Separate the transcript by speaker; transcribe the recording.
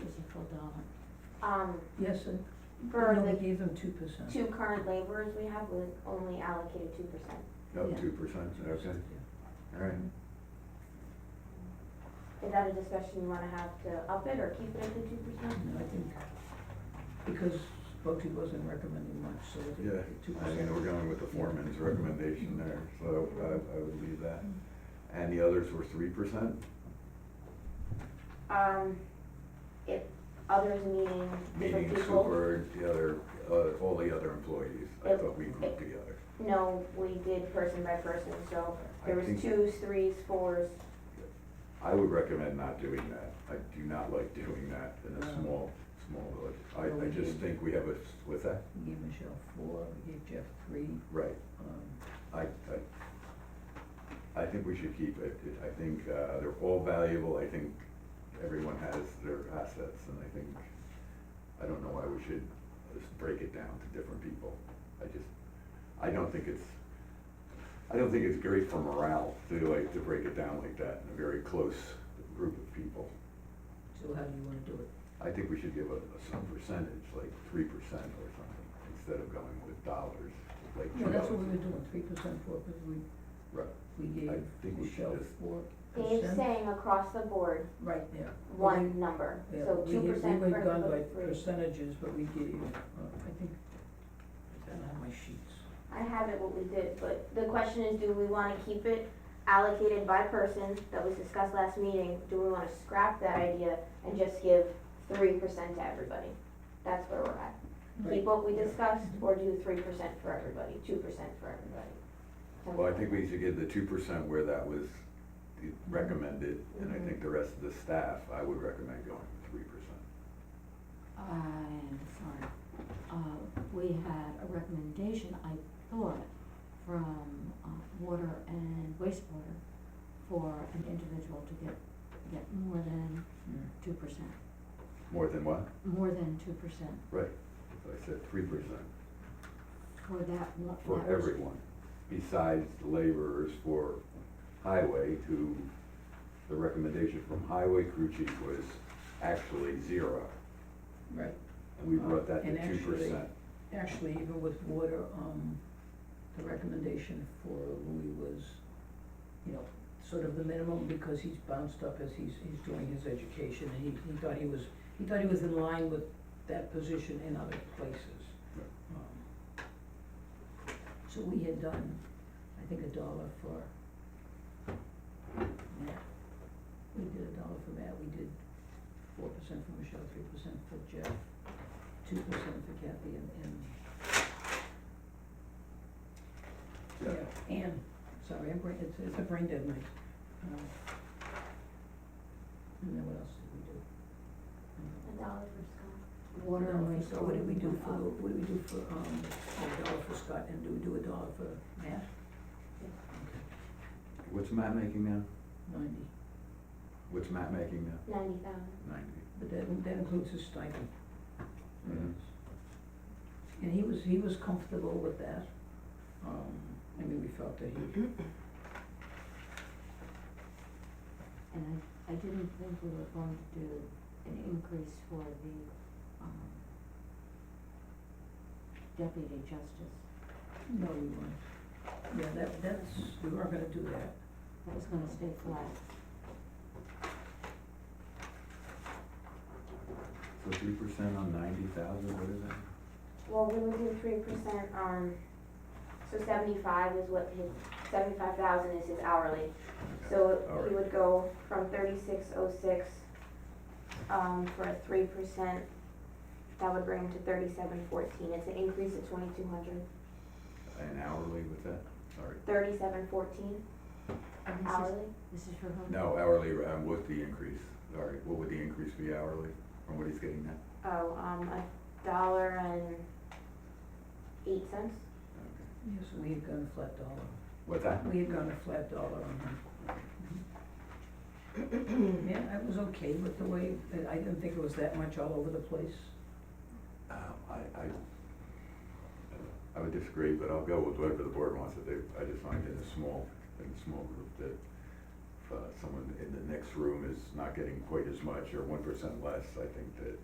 Speaker 1: on it.
Speaker 2: Um,
Speaker 1: Yes, and,
Speaker 2: for
Speaker 1: no, we
Speaker 2: the
Speaker 1: gave them two percent.
Speaker 2: two current laborers we have, we only allocated two percent.
Speaker 3: Oh,
Speaker 1: Yeah.
Speaker 3: two percent, okay, all right.
Speaker 2: Is that a discussion you wanna have to up it or keep it at the two percent?
Speaker 1: No, I think, because Bochy wasn't recommending much, so I
Speaker 3: Yeah,
Speaker 1: think two
Speaker 3: I
Speaker 1: percent.
Speaker 3: mean, we're going with the foreman's recommendation there, so I, I would leave that. And the others were three percent?
Speaker 2: Um, if others meaning different
Speaker 3: Meaning
Speaker 2: people,
Speaker 3: super, the other, uh, all the other employees, I thought we grouped together.
Speaker 2: no, we did person by person, so there
Speaker 3: I
Speaker 2: was
Speaker 3: think-
Speaker 2: twos, threes, fours.
Speaker 3: I would recommend not doing that, I do not like doing that in a
Speaker 1: No.
Speaker 3: small, small village.
Speaker 1: No,
Speaker 3: I, I
Speaker 1: we
Speaker 3: just
Speaker 1: didn't.
Speaker 3: think we have a, with that,
Speaker 1: We gave Michelle four, we gave Jeff three,
Speaker 3: right,
Speaker 1: um,
Speaker 3: I, I, I think we should keep it, It- I think, uh, they're all valuable, I think everyone has their assets, and I think, I don't know why we should just break it down to different people, I just, I don't think it's, I don't think it's great for morale to like, to break it down like that in a very close group of people.
Speaker 1: so how do you wanna do it?
Speaker 3: I think we should give a, a some percentage, like three percent or something, instead of going with dollars, like two
Speaker 1: Yeah,
Speaker 3: dollars.
Speaker 1: that's what we were doing, three percent, four, percent. we,
Speaker 3: Right.
Speaker 1: we
Speaker 3: I
Speaker 1: gave
Speaker 3: think we should
Speaker 1: Michelle
Speaker 3: just-
Speaker 1: four percent.
Speaker 2: Dave's saying across the board,
Speaker 1: Right there.
Speaker 2: one number,
Speaker 1: Yeah,
Speaker 2: so
Speaker 1: we
Speaker 2: two
Speaker 1: had-
Speaker 2: percent for
Speaker 1: We went down by
Speaker 2: the three.
Speaker 1: percentages, but we gave, uh, I think, I don't have my sheets.
Speaker 2: I have it what we did, but the question is, do we wanna keep it allocated by person that was discussed last meeting? Do we wanna scrap that idea and just give three percent to everybody? That's where we're at. Keep what we
Speaker 3: Yeah.
Speaker 2: discussed or do three percent for everybody, two percent for everybody?
Speaker 3: Well, I think we should give the two percent where that was the- recommended, and I
Speaker 2: Mhm.
Speaker 3: think the rest of the staff, I would recommend going with three percent.
Speaker 4: I'm sorry, uh, we had a recommendation, I thought, from, uh, water and wastewater for an individual to get, get more than
Speaker 1: Mm.
Speaker 4: two percent,
Speaker 3: More than what?
Speaker 4: more than two percent
Speaker 3: So I said three percent
Speaker 4: for that one, that
Speaker 3: for
Speaker 4: was-
Speaker 3: everyone, besides the laborers for highway, who, the recommendation from highway crew chief was actually zero,
Speaker 1: Right,
Speaker 3: and we brought that
Speaker 1: And
Speaker 3: to two
Speaker 1: actually-
Speaker 3: percent.
Speaker 1: actually, even with water, um, the recommendation for Louis was, you know, sort of the minimum, because he's bounced up as he's, he's doing his education, and he, he thought he was, he thought he was in line with that position in other places.
Speaker 3: Right.
Speaker 1: Um, So we had done, I think, a dollar for Matt, we did a dollar for Matt, we did four percent for Michelle, three percent for Jeff, two percent for Kathy, and, and
Speaker 3: Yeah.
Speaker 1: yeah, and, sorry, I'm brain, it's, it's a brain dead night. Um, And then what else did we do? Um,
Speaker 2: A dollar for
Speaker 4: Water and
Speaker 1: dollar for Scott.
Speaker 4: wastewater.
Speaker 1: What did we do
Speaker 4: went
Speaker 1: for,
Speaker 4: up.
Speaker 1: what did we do for, um, a dollar for Scott, and do we do a dollar for Matt?
Speaker 3: What's Matt making now?
Speaker 1: Ninety,
Speaker 3: What's Matt making now?
Speaker 2: Scott, ninety thousand.
Speaker 3: Ninety.
Speaker 1: but that, that includes his stipend.
Speaker 3: Mhm.
Speaker 1: And he was, he was comfortable with that, um, I mean, we felt that he,
Speaker 4: And I, I didn't think we were going to do an increase for the, um, deputy justice.
Speaker 1: no, we weren't. Yeah, that, that's, we were gonna do that,
Speaker 4: That was gonna stay flat.
Speaker 3: So three percent on ninety thousand, what is that?
Speaker 2: Well, we would do three percent, um, so seventy-five is what his, seventy-five thousand is his hourly. So
Speaker 3: All
Speaker 2: he
Speaker 3: right.
Speaker 2: would go from thirty-six oh six, um, for a three percent, that would bring him to thirty-seven fourteen, it's an increase of twenty-two hundred,
Speaker 3: An hourly with that? Sorry.
Speaker 2: thirty-seven fourteen
Speaker 4: And this is-
Speaker 2: hourly.
Speaker 4: This is for whom?
Speaker 3: No, hourly, um, with the increase, sorry, what would the increase be hourly from what he's getting now?
Speaker 2: Oh, um, a dollar and eight cents,
Speaker 3: Okay.
Speaker 1: yes, we had gone a flat dollar.
Speaker 3: What's that?
Speaker 1: We had gone a flat dollar on him. Yeah, I was okay with the way, I didn't think it was that much all over the place.
Speaker 3: Um, I, I, uh, I would disagree, but I'll go with whatever the board wants to do. I just find in a small, in a small group that if uh, someone in the next room is not getting quite as much or one percent less, I think that